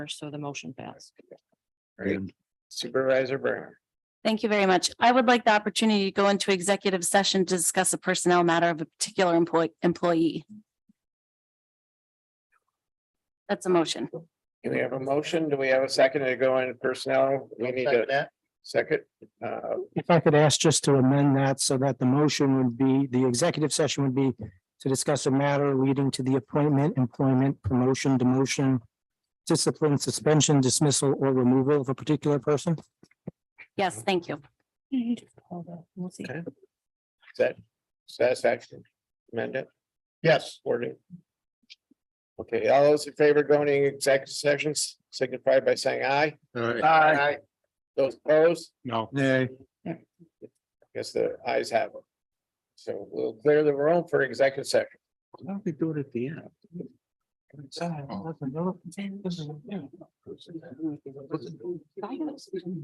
so the motion passed. Great. Supervisor Brenner. Thank you very much. I would like the opportunity to go into executive session to discuss a personnel matter of a particular employee employee. That's a motion. Do we have a motion? Do we have a second to go into personnel? We need to second. Uh, If I could ask just to amend that so that the motion would be, the executive session would be to discuss a matter leading to the appointment, employment, promotion, demotion, discipline, suspension, dismissal, or removal of a particular person. Yes, thank you. is that satisfaction? Amend it? Yes. Wording. Okay, all those in favor going to executive sessions signify by saying aye. Aye. Those opposed? No. Nay. Guess the ayes have it. So we'll clear the room for executive session. Why don't we do it at the end?